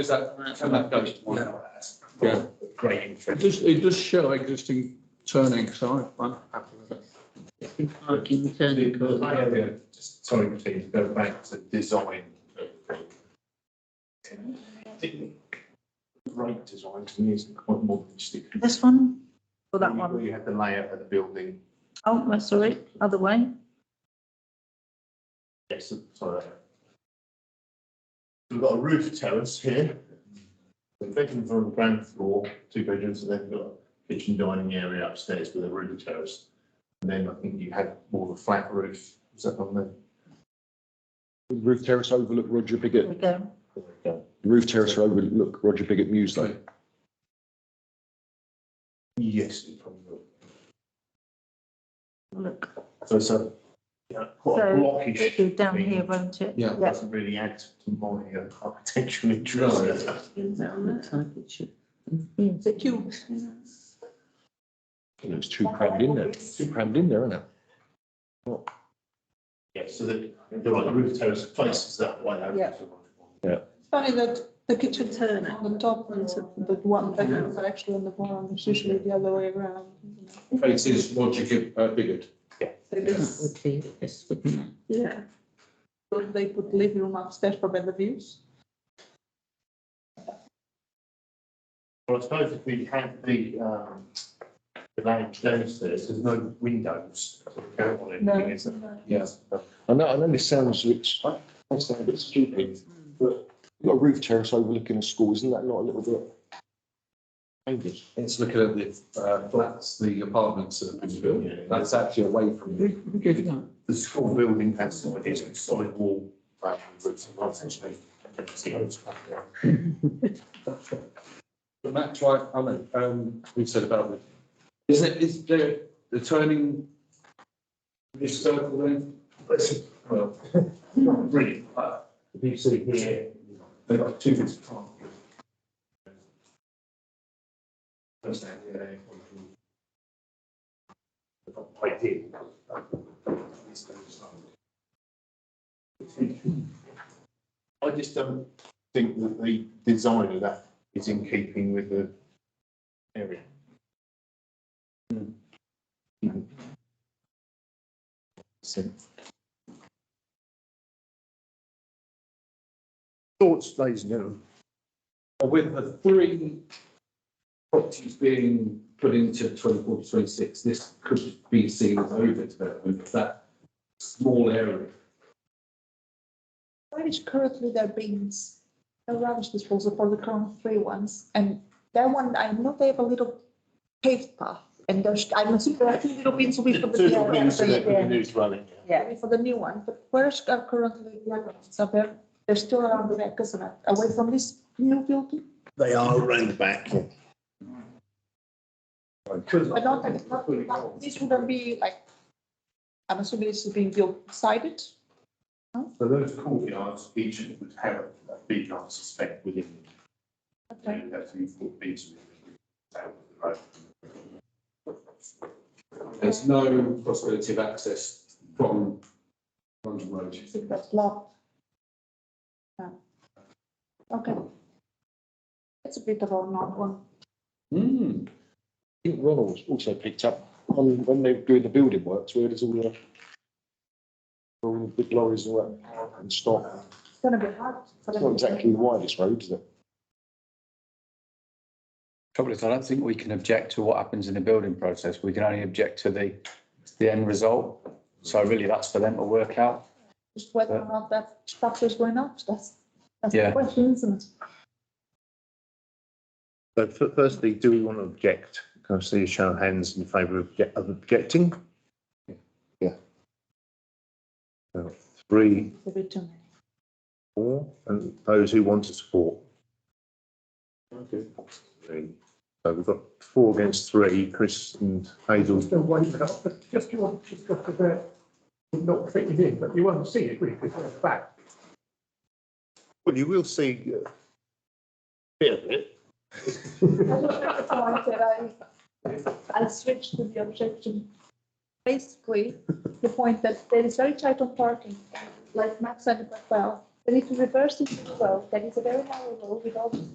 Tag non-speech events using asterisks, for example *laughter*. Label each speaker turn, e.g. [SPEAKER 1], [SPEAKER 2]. [SPEAKER 1] Is that, and that goes to one hour.
[SPEAKER 2] Yeah.
[SPEAKER 3] Great.
[SPEAKER 2] It does, it does show existing turning, so I'm happy with it.
[SPEAKER 4] parking turning
[SPEAKER 3] Yeah,
[SPEAKER 4] corner.
[SPEAKER 3] yeah, just Sorry, please, go back to design. Great design, to me, is quite more than just.
[SPEAKER 4] This one or that one?
[SPEAKER 3] You have the layout of the building,
[SPEAKER 4] Oh, I saw it, other way.
[SPEAKER 3] yes, sorry. We've got a roof terrace here. The bedrooms are on the ground floor, two bedrooms, and then you've got a kitchen dining area upstairs with a roof terrace. And then I think you had more of a flat roof, is that on there?
[SPEAKER 5] Roof terrace overlook Roger
[SPEAKER 4] There
[SPEAKER 5] Biggett,
[SPEAKER 4] we go.
[SPEAKER 3] There we go.
[SPEAKER 5] roof terrace overlook Roger Biggett Muse though.
[SPEAKER 3] Yes, it probably will.
[SPEAKER 4] Look,
[SPEAKER 3] So it's a, yeah, quite a
[SPEAKER 4] So,
[SPEAKER 3] blockish.
[SPEAKER 4] it'll be down
[SPEAKER 3] thing.
[SPEAKER 4] here, won't it?
[SPEAKER 2] Yeah.
[SPEAKER 4] Yeah.
[SPEAKER 3] Doesn't really add to my uh, architectural interest.
[SPEAKER 4] Is that on that side? It should. It's a cube.
[SPEAKER 5] It looks too crammed in there, It's too crammed in there, isn't it?
[SPEAKER 3] Yeah, so the, the right roof terrace faces that way. over
[SPEAKER 6] Yeah.
[SPEAKER 3] to one.
[SPEAKER 6] Funny that the kitchen turn on the top ones, the one bedrooms are actually on the bottom, it's usually the other way around.
[SPEAKER 2] Faces Roger Gib, uh, Biggert.
[SPEAKER 6] So
[SPEAKER 4] That
[SPEAKER 6] this,
[SPEAKER 4] would be this, wouldn't it?
[SPEAKER 6] yeah. So They put living room upstairs for better views.
[SPEAKER 3] Well, I suppose if we had the, um, the lounge downstairs, there's no windows. so we don't want
[SPEAKER 6] No.
[SPEAKER 3] anything, is there?
[SPEAKER 2] Yes.
[SPEAKER 5] I know, I know this sounds, it's, I sound a bit stupid, but you've got a roof terrace overlooking a school, isn't that not a little bit? Maybe.
[SPEAKER 1] It's looking at the, uh, flats, the apartments that have been built.
[SPEAKER 3] Yeah.
[SPEAKER 1] That's actually away from
[SPEAKER 2] Who,
[SPEAKER 1] the
[SPEAKER 2] who gave you that?
[SPEAKER 3] The school building has solid, it's a solid wall. around the roof, so that's actually-
[SPEAKER 1] But Matt, right, I mean, um, we said about it. Is it, is there the turning? This circle then?
[SPEAKER 3] Listen, well, *laughs* not really, but if you see here, they've got two bits of triangle. That's that, yeah, they- They've got quite deep. I just don't think that the design of that is in keeping with the area. So-
[SPEAKER 5] Thoughts, ladies and gentlemen?
[SPEAKER 1] With the three properties being put into 24 to 26, this could be seen as over development, that small area.
[SPEAKER 6] Where is currently their bins, the rubbish disposal for the current three ones, and that one, I know they have a little paved path, and there's, I'm assuming there are two little bins will be for the.
[SPEAKER 3] Two
[SPEAKER 6] DIY,
[SPEAKER 3] buildings
[SPEAKER 6] so
[SPEAKER 3] that
[SPEAKER 6] you
[SPEAKER 3] could be
[SPEAKER 6] can-
[SPEAKER 3] used running.
[SPEAKER 6] Yeah, for the new one, but where's are currently the other ones? Are they, they're still around the back, isn't it? Away from this new building?
[SPEAKER 3] They are around the back.
[SPEAKER 6] I don't think, not- not- this wouldn't be like, I'm assuming this is being built sided?
[SPEAKER 3] So those courtyards, each of them would have a beach, I suspect, within.
[SPEAKER 6] Okay.
[SPEAKER 3] That's the four beaches.
[SPEAKER 1] There's no possibility of access from London Road.
[SPEAKER 6] I think that's locked. Yeah. Okay. It's a bit of a not one.
[SPEAKER 1] Hmm,
[SPEAKER 5] I think Ronald's also picked up on when they were doing the building works, where there's all the all the big lorries and all that and stop.
[SPEAKER 6] It's gonna be hard. for
[SPEAKER 5] It's
[SPEAKER 6] them
[SPEAKER 5] not
[SPEAKER 6] to-
[SPEAKER 5] exactly the widest road, is it?
[SPEAKER 7] Trouble is, I don't think we can object to what happens in the building process. We can only object to the, the end result. So really, that's for them to work out.
[SPEAKER 6] Just whether or not that structure is going up, that's, that's the
[SPEAKER 7] Yeah.
[SPEAKER 6] question, isn't it?
[SPEAKER 8] So f- firstly, do we want to object? Can I see a show of hands in favour of obje- of objecting? Yeah. So Three,
[SPEAKER 6] It's a bit too many.
[SPEAKER 8] four, and those who want to support?
[SPEAKER 1] Okay.
[SPEAKER 8] Three. So we've got four against three, Chris and Hazel.
[SPEAKER 9] Still waiting for that, but just you want, just got to bear, not fitting in, but you won't see it, really, because it's back.
[SPEAKER 8] Well, you will see uh, a bit of it.
[SPEAKER 6] *laughs* So I said I, I switched to the objection. Basically, the point that there is very tight on parking, like Max said it quite well, But if you reverse it as well, then it's a very narrow road with all